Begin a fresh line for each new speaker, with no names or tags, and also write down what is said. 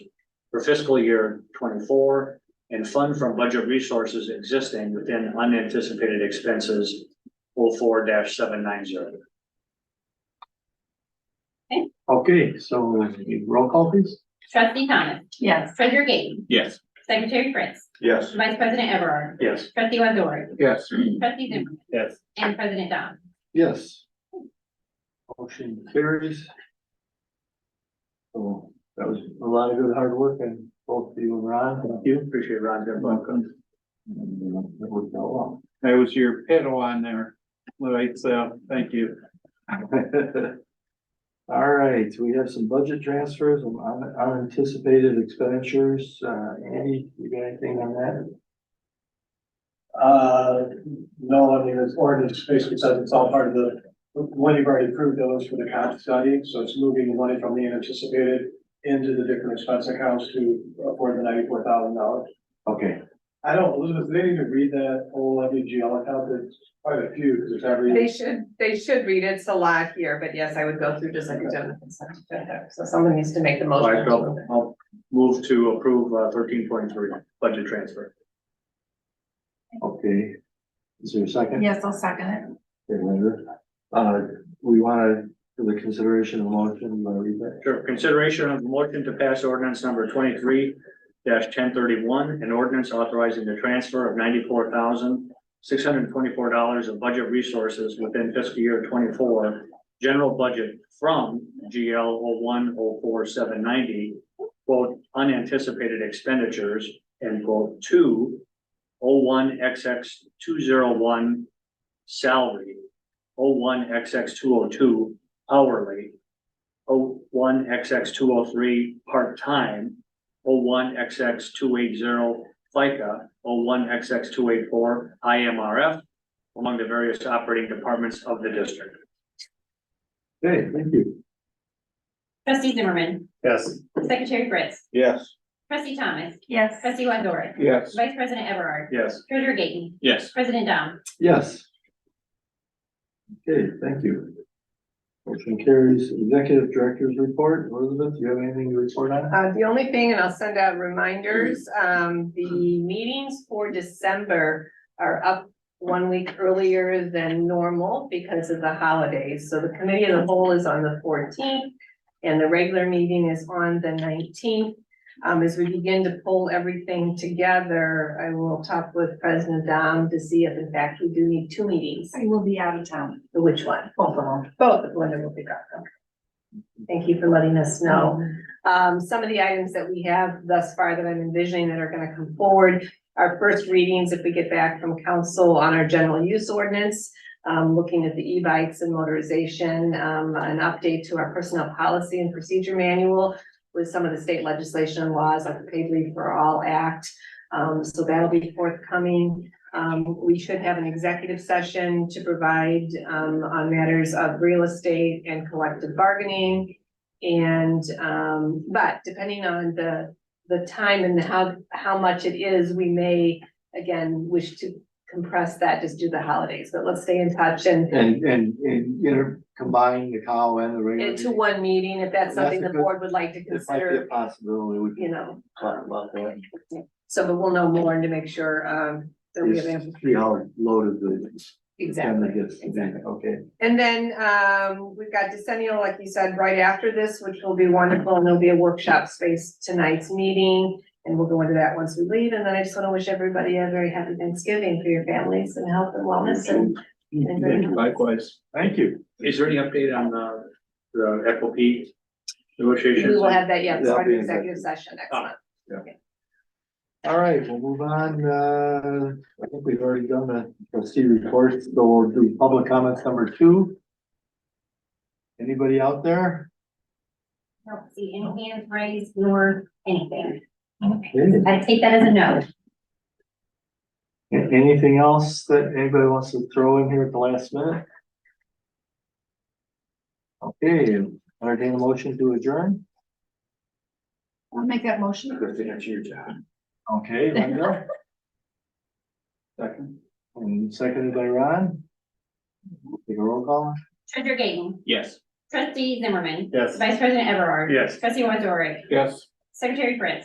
for fiscal year twenty-four and fund from budget resources existing within unanticipated expenses 4 seven nine zero.
Okay, so roll call please.
Trustee Thomas,
Yes.
Treasurer Gaten,
Yes.
Secretary Prince,
Yes.
Vice President Everard,
Yes.
Trustee Wendorick,
Yes.
Trustee Zimmerman,
Yes.
and President Dom.
Yes. Motion carries. So that was a lot of good hard work and both you and Ron, thank you.
Appreciate Ron's input.
Welcome.
And, uh, It worked out well.
That was your pedal on there, right, so, thank you.
All right, we have some budget transfers, and un- unanticipated expenditures. Uh, Andy, you got anything on that?
Uh, no, I mean, it's ordinance basically says it's all part of the, one, you've already approved those for the comp study, so it's moving the money from the anticipated into the different expense accounts to afford the ninety-four thousand dollars.
Okay,
I don't, Elizabeth, do they need to read that whole WGL account, there's quite a few, because it's every,
They should, they should read it. It's a lot here, but yes, I would go through just like a general consent agenda. So someone needs to make the
So
motion.
I felt- I'll move to approve uh, thirteen point three budget transfer.
okay. Is there a second?
Yes, I'll second it.
Okay, Linda. Uh, we wanna, for the consideration of motion, you wanna read that?
Sure, consideration of motion to pass ordinance number twenty-three ten thirty-one, an ordinance authorizing the transfer of ninety-four thousand six hundred and twenty-four dollars of budget resources within fiscal year twenty-four general budget from GL oh one oh four seven ninety, quote, unanticipated expenditures, end quote, to oh one XX two zero one salary, oh one XX two oh two hourly, O oh one XX two oh three part-time, O one XX two eight zero FICA, O one XX two eight four IMRF among the various operating departments of the district.
Okay, thank you.
Trustee Zimmerman,
Yes.
Secretary Prince,
Yes.
Trustee Thomas,
Yes.
Trustee Wendorick,
Yes.
Vice President Everard,
Yes.
Treasurer Gaten,
Yes.
President Dom.
Yes. Okay, thank you. Motion carries. Executive Director's Report. Elizabeth, do you have anything to report on?
Uh, the only thing, and I'll send out reminders, um, the meetings for December are up one week earlier than normal because of the holidays. So the committee of the whole is on the fourteenth and the regular meeting is on the nineteenth. Um, as we begin to pull everything together, I will talk with President Dom to see if in fact we do need two meetings.
I will be out of town.
Which one?
Both of them.
Both of Linda will be gone. Okay. Thank you for letting us know. Um, some of the items that we have thus far that I'm envisioning that are gonna come forward. Our first readings, if we get back from council on our general use ordinance, um, looking at the e-bikes and motorization, um, an update to our personnel policy and procedure manual with some of the state legislation and laws like the Paid Leave for All Act. Um, so that'll be forthcoming. Um, we should have an executive session to provide, um, on matters of real estate and collective bargaining. And, um, but depending on the, the time and how, how much it is, we may, again, wish to compress that, just do the holidays, but let's stay in touch and
And, and, and, you know, combine the cow and the regular.
into one meeting, if that's
That's
something
a
the
good-
board would like to
meeting. It might be a
consider,
possibility. We
you
can
know,
talk about that.
so, but we'll know more and to make sure, um, that we have. ample-
It's three hour load of the.
Exactly.
and the gifts.
exactly.
Okay,
And then, um, we've got decennial, like you said, right after this, which will be wonderful, and there'll be a workshop space tonight's meeting. And we'll go into that once we leave, and then I just wanna wish everybody a very happy Thanksgiving for your families and health and wellness and. and very much.
Likewise.
thank you.
Is there any update on uh, the Echo P
We
negotiations?
will have that, yeah, it's
That'll
part of
be
the
in
executive session next
Ah.
month.
All right, we'll move on. Uh, I think we've already done the trustee reports, so we'll do public comments number two. Anybody out there?
Don't see any hands raised nor anything.
Okay.
I take that as a no.
A- Anything else that anybody wants to throw in here at the last minute? Okay, entertain a motion to adjourn.
I'll make that motion.
Okay, Linda. Second, and seconded by Ron. Take a roll call.
Treasurer Gaten,
Yes.
Trustee Zimmerman,
Yes.
Vice President Everard.
Yes.
Trustee Wendorick,
Yes.
Secretary Prince,